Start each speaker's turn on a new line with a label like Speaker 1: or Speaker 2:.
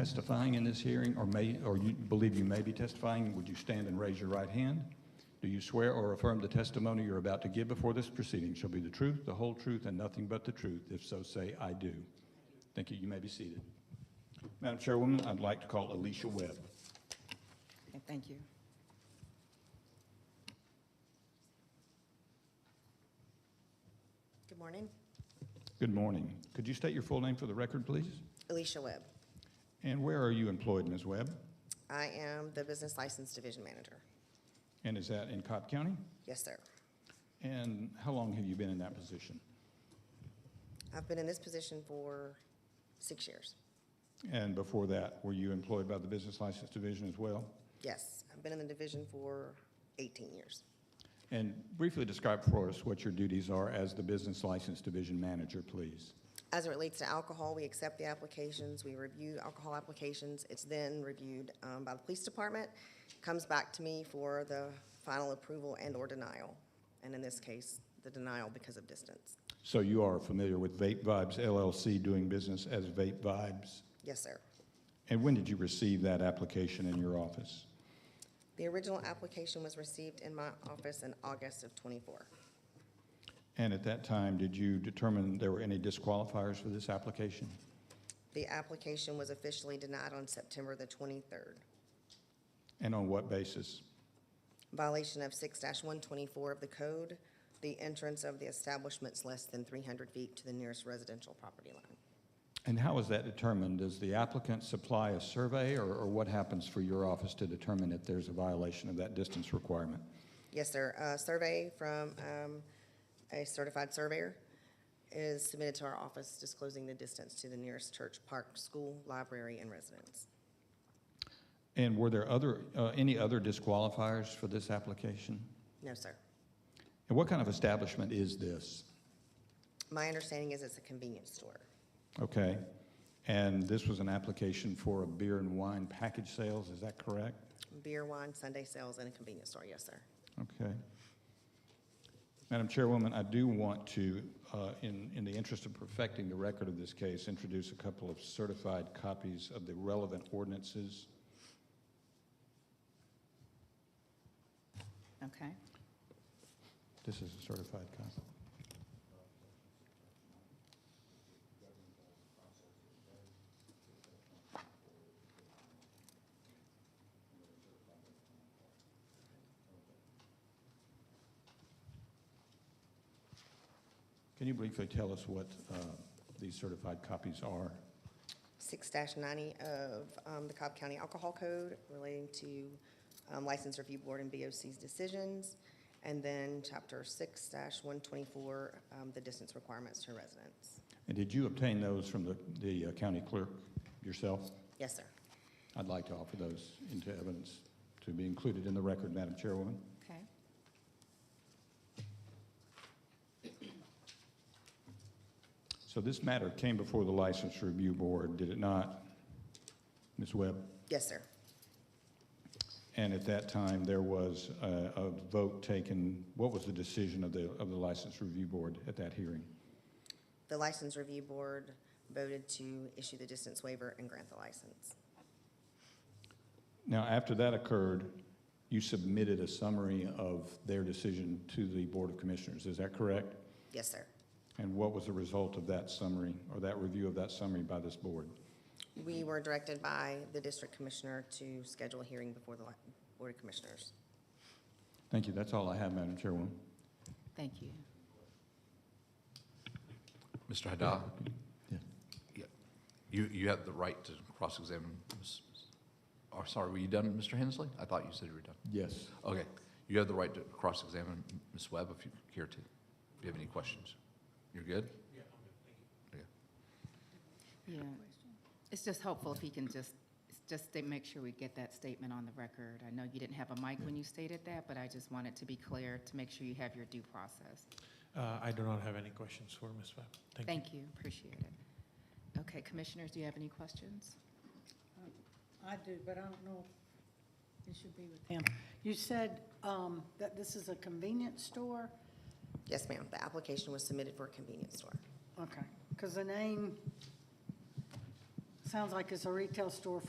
Speaker 1: testifying in this hearing or may, or you believe you may be testifying, would you stand and raise your right hand? Do you swear or affirm the testimony you're about to give before this proceeding shall be the truth, the whole truth, and nothing but the truth? If so, say, "I do." Thank you. You may be seated. Madam Chairwoman, I'd like to call Alicia Webb.
Speaker 2: Okay, Thank you.
Speaker 3: Good morning.
Speaker 1: Good morning. Could you state your full name for the record, please?
Speaker 3: Alicia Webb.
Speaker 1: And where are you employed, Ms. Webb?
Speaker 3: I am the Business License Division Manager.
Speaker 1: And is that in Cobb County?
Speaker 3: Yes, sir.
Speaker 1: And how long have you been in that position?
Speaker 3: I've been in this position for six years.
Speaker 1: And before that, were you employed by the Business License Division as well?
Speaker 3: Yes, I've been in the division for 18 years.
Speaker 1: And briefly describe for us what your duties are as the Business License Division Manager, please.
Speaker 3: As it relates to alcohol, we accept the applications, we review alcohol applications. It's then reviewed um, by the police department, comes back to me for the final approval and/or denial. And in this case, the denial because of distance.
Speaker 1: So you are familiar with Vape Vibes LLC doing business as Vape Vibes?
Speaker 3: Yes, sir.
Speaker 1: And when did you receive that application in your office?
Speaker 3: The original application was received in my office in August of '24.
Speaker 1: And at that time, did you determine there were any disqualifiers for this application?
Speaker 3: The application was officially denied on September the 23rd.
Speaker 1: And on what basis?
Speaker 3: Violation of 6-124 of the code, the entrance of the establishment's less than 300 feet to the nearest residential property line.
Speaker 1: And how is that determined? Does the applicant supply a survey, or, or what happens for your office to determine if there's a violation of that distance requirement?
Speaker 3: Yes, sir. A survey from um, a certified surveyor is submitted to our office disclosing the distance to the nearest church, park, school, library, and residence.
Speaker 1: And were there other, uh, any other disqualifiers for this application?
Speaker 3: No, sir.
Speaker 1: And what kind of establishment is this?
Speaker 3: My understanding is it's a convenience store.
Speaker 1: Okay. And this was an application for a beer and wine package sales, is that correct?
Speaker 3: Beer, wine, Sunday sales, and a convenience store. Yes, sir.
Speaker 1: Okay. Madam Chairwoman, I do want to, uh, in, in the interest of perfecting the record of this case, introduce a couple of certified copies of the relevant ordinances.
Speaker 2: Okay.
Speaker 1: This is a certified copy. Can you briefly tell us what uh, these certified copies are?
Speaker 3: six ninety of um, the Cobb County Alcohol Code relating to um, License Review Board and BOC's decisions, and then chapter six one twenty-four, um, the distance requirements to residents.
Speaker 1: And did you obtain those from the, the uh, county clerk yourself?
Speaker 3: Yes, sir.
Speaker 1: I'd like to offer those into evidence to be included in the record, Madam Chairwoman.
Speaker 2: Okay.
Speaker 1: So this matter came before the License Review Board, did it not, Ms. Webb?
Speaker 3: Yes, sir.
Speaker 1: And at that time, there was a, a vote taken, what was the decision of the, of the License Review Board at that hearing?
Speaker 3: The License Review Board voted to issue the distance waiver and grant the license.
Speaker 1: Now, after that occurred, you submitted a summary of their decision to the Board of Commissioners, is that correct?
Speaker 3: Yes, sir.
Speaker 1: And what was the result of that summary, or that review of that summary by this board?
Speaker 3: We were directed by the district commissioner to schedule a hearing before the Li- Board of Commissioners.
Speaker 1: Thank you, that's all I have, Madam Chairwoman.
Speaker 2: Thank you.
Speaker 4: Mr. Haddad,
Speaker 1: Yeah.
Speaker 4: you, you have the right to cross-examine. Ms. Oh, sorry, were you done, Mr. Hensley? I thought you said you were done.
Speaker 1: Yes.
Speaker 4: Okay, you have the right to cross-examine Ms. Webb if you care to. If you have any questions. You're good?
Speaker 2: Yeah. It's just helpful if he can just, it's just to make sure we get that statement on the record. I know you didn't have a mic when you stated that, but I just wanted to be clear to make sure you have your due process.
Speaker 5: Uh, I do not have any questions for Ms. Webb. Thank you.
Speaker 2: Thank you, appreciate it. Okay, commissioners, do you have any questions?
Speaker 6: I do, but I don't know if it should be with him. You said um, that this is a convenience store?
Speaker 3: Yes, ma'am. The application was submitted for a convenience store.
Speaker 6: Okay, because the name sounds like it's a retail store